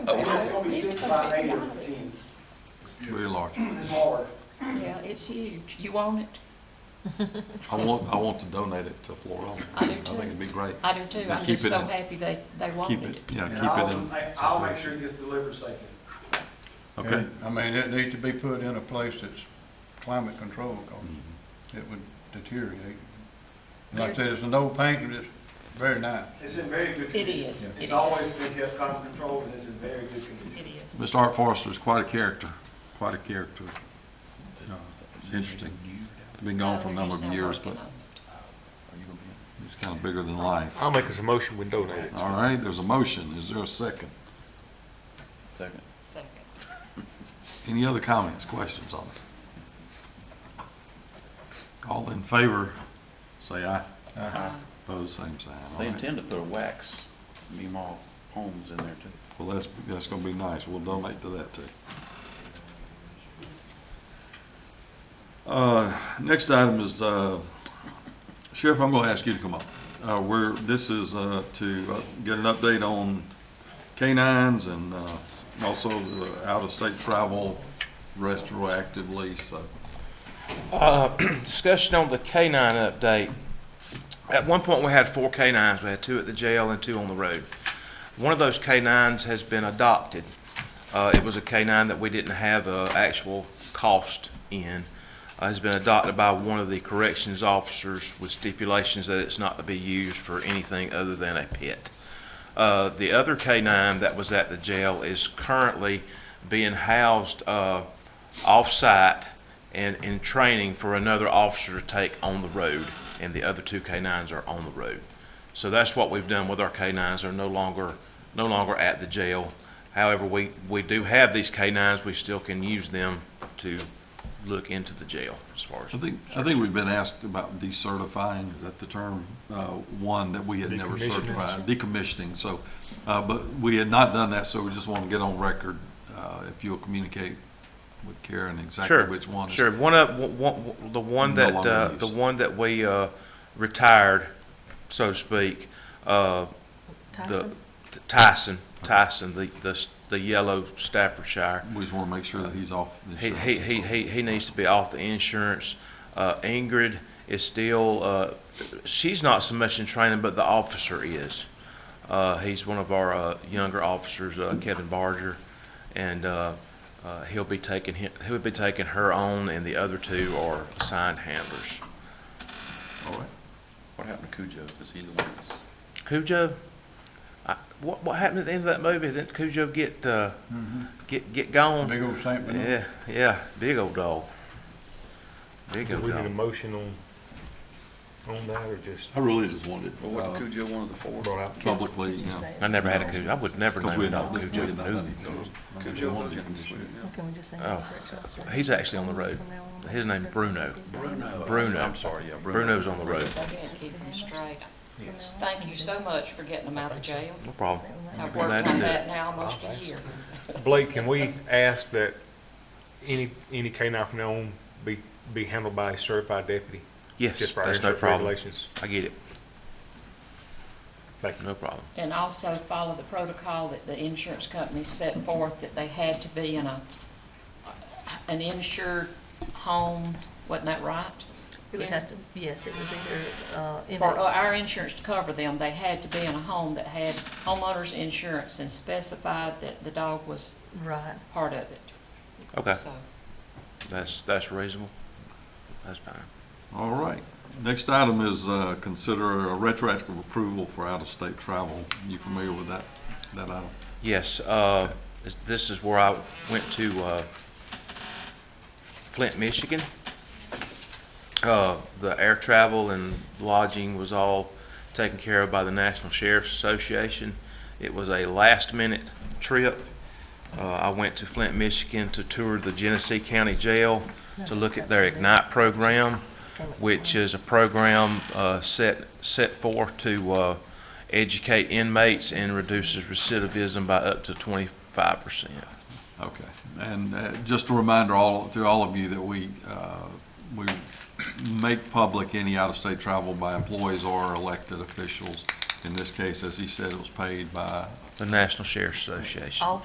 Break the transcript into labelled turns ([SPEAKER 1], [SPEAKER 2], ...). [SPEAKER 1] Oh,
[SPEAKER 2] It's gonna be six by eight or ten.
[SPEAKER 3] Very large.
[SPEAKER 2] It's hard.
[SPEAKER 1] Yeah, it's huge. You want it?
[SPEAKER 3] I want, I want to donate it to Florida.
[SPEAKER 1] I do
[SPEAKER 3] think it'd be great.
[SPEAKER 1] I do too.
[SPEAKER 3] Now
[SPEAKER 1] I'm
[SPEAKER 3] keep
[SPEAKER 1] just
[SPEAKER 3] it
[SPEAKER 1] so
[SPEAKER 3] in-
[SPEAKER 1] happy they, they
[SPEAKER 3] Keep
[SPEAKER 1] wanted
[SPEAKER 3] it,
[SPEAKER 1] it.
[SPEAKER 3] yeah,
[SPEAKER 2] And I'll
[SPEAKER 3] keep it in.
[SPEAKER 2] make- I'll make sure it gets delivered safely.
[SPEAKER 3] Okay.
[SPEAKER 4] I mean, it needs to be put in a place that's climate controlled,
[SPEAKER 3] Mm-hmm.
[SPEAKER 4] 'cause
[SPEAKER 3] Mm.
[SPEAKER 4] it would deteriorate. Like I said, it's an old painting, it's very nice.
[SPEAKER 2] It's in very good
[SPEAKER 1] It
[SPEAKER 2] condition.
[SPEAKER 1] is. It
[SPEAKER 2] It's
[SPEAKER 1] is.
[SPEAKER 2] always been kept under control and it's in very good condition.
[SPEAKER 1] It is.
[SPEAKER 3] Mr. Art Forrester's quite a character, quite a character. Uh, It's interesting. Been gone for a number of years, but it's kind of bigger than life.
[SPEAKER 5] I'll make us a motion, we donate it.
[SPEAKER 3] All right, there's a motion. Is there a second?
[SPEAKER 6] Second.
[SPEAKER 1] Second.
[SPEAKER 3] Any other comments, questions on it? All in favor, say aye.
[SPEAKER 1] Uh,
[SPEAKER 3] Opposed, same sign. All
[SPEAKER 6] They
[SPEAKER 3] right.
[SPEAKER 6] intend to put a wax beam all homes in there too.
[SPEAKER 3] Well, that's, that's gonna be nice. We'll donate to that too. Uh, next item is, uh, Sheriff, I'm gonna ask you to come up. Uh, we're, this is, uh, to uh, get an update on canines and, uh, also the out-of-state travel retroactively, so.
[SPEAKER 7] discussion on the K-9 update. At one point, we had four K-9s. We had two at the jail and two on the road. One of those K-9s has been adopted. Uh, It was a K-9 that we didn't have an actual cost in. Uh, It's been adopted by one of the corrections officers with stipulations that it's not to be used for anything other than a pet. Uh, The other K-9 that was at the jail is currently being housed uh, off-site and in training for another officer to take on the road, and the other two K-9s are on the road. So that's what we've done with our K-9s, they're no longer, no longer at the jail. However, we, we do have these K-9s, we still can use them to look into the jail as far as.
[SPEAKER 3] I think, I think we've been asked about decertifying, is that the term? Uh, one that we had never
[SPEAKER 5] Decommissioning.
[SPEAKER 3] certified, decommissioning, so, uh, but we had not done that, so we just want to get on record. Uh, if you'll communicate with Karen exactly
[SPEAKER 7] Sure,
[SPEAKER 3] which one. is-
[SPEAKER 7] Sure, one of, one- one, the one
[SPEAKER 3] No
[SPEAKER 7] that,
[SPEAKER 3] longer
[SPEAKER 7] uh,
[SPEAKER 3] in
[SPEAKER 7] the
[SPEAKER 3] use.
[SPEAKER 7] one that we, uh, retired, so to speak, uh, the, Tyson, Tyson, the, the, the yellow Staffordshire.
[SPEAKER 3] We just want to make sure that he's off. the
[SPEAKER 7] He,
[SPEAKER 3] insurance.
[SPEAKER 7] he, he, he, he needs to be off the insurance. Uh, Ingrid is still, uh, she's not so much in training, but the officer is. Uh, he's one of our, uh, younger officers, uh, Kevin Barger. And, uh, uh, he'll be taking him, he'll be taking her on and the other two are assigned handlers.
[SPEAKER 3] All right.
[SPEAKER 6] What happened to Cujo? Is he the one that's?
[SPEAKER 7] Cujo, I, what, what happened at the end of that movie? Didn't Cujo get, uh, get, get gone?
[SPEAKER 4] Big old Saint Bernard.
[SPEAKER 7] Yeah, yeah, big old dog. Big
[SPEAKER 5] Do
[SPEAKER 7] old
[SPEAKER 5] we need a
[SPEAKER 7] dog.
[SPEAKER 5] motion on, on that, or just
[SPEAKER 3] I really just wanted,
[SPEAKER 6] Well, wasn't
[SPEAKER 3] uh,
[SPEAKER 6] Cujo one of the four?
[SPEAKER 5] brought out?
[SPEAKER 3] publicly, you know,
[SPEAKER 7] I never had a Cujo. I would never
[SPEAKER 3] 'cause we
[SPEAKER 7] name a
[SPEAKER 3] had not,
[SPEAKER 7] dog
[SPEAKER 3] we
[SPEAKER 7] Cujo.
[SPEAKER 3] had not done
[SPEAKER 7] No.
[SPEAKER 3] anything. I mean, we
[SPEAKER 6] Cujo
[SPEAKER 3] wanted
[SPEAKER 6] Hogan.
[SPEAKER 3] decommissioning.
[SPEAKER 8] Can we just say?
[SPEAKER 7] Oh,
[SPEAKER 8] correct officer?
[SPEAKER 7] he's actually on the road. His name's Bruno.
[SPEAKER 6] Bruno.
[SPEAKER 7] Bruno.
[SPEAKER 6] I'm sorry, yeah, Bruno.
[SPEAKER 7] Bruno's on the road.
[SPEAKER 1] I can't keep them straight. Thank you so much for getting them out of jail.
[SPEAKER 7] No problem.
[SPEAKER 1] I've worked on that now almost a year.
[SPEAKER 5] Blake, can we ask that any, any canine from now on be, be handled by a certified deputy?
[SPEAKER 7] Yes,
[SPEAKER 5] Just for our
[SPEAKER 7] that's no
[SPEAKER 5] insurance
[SPEAKER 7] problem.
[SPEAKER 5] regulations?
[SPEAKER 7] I get it.
[SPEAKER 5] Thank you.
[SPEAKER 7] No problem.
[SPEAKER 1] And also follow the protocol that the insurance company set forth, that they had to be in a, an insured home, wasn't that right?
[SPEAKER 8] It would have to, yes, it was either, uh, in
[SPEAKER 1] For
[SPEAKER 8] a-
[SPEAKER 1] our insurance to cover them, they had to be in a home that had homeowner's insurance and specified that the dog was
[SPEAKER 8] right.
[SPEAKER 1] part of it.
[SPEAKER 7] Okay,
[SPEAKER 1] So,
[SPEAKER 7] that's, that's reasonable. That's fine.
[SPEAKER 3] All right. Next item is, uh, consider a retroactive approval for out-of-state travel. You familiar with that, that item?
[SPEAKER 7] Yes, uh, this- this is where I went to uh, Flint, Michigan. Uh, The air travel and lodging was all taken care of by the National Sheriff's Association. It was a last-minute trip. Uh, I went to Flint, Michigan to tour the Genesee County Jail to look at their Ignite program which is a program uh, set, set forth to uh, educate inmates and reduces recidivism by up to 25%.
[SPEAKER 3] Okay, and uh, just a reminder all, to all of you that we, uh, we make public any out-of-state travel by employees or elected officials. In this case, as he said, it was paid by
[SPEAKER 7] The National Sheriff's Association.
[SPEAKER 8] All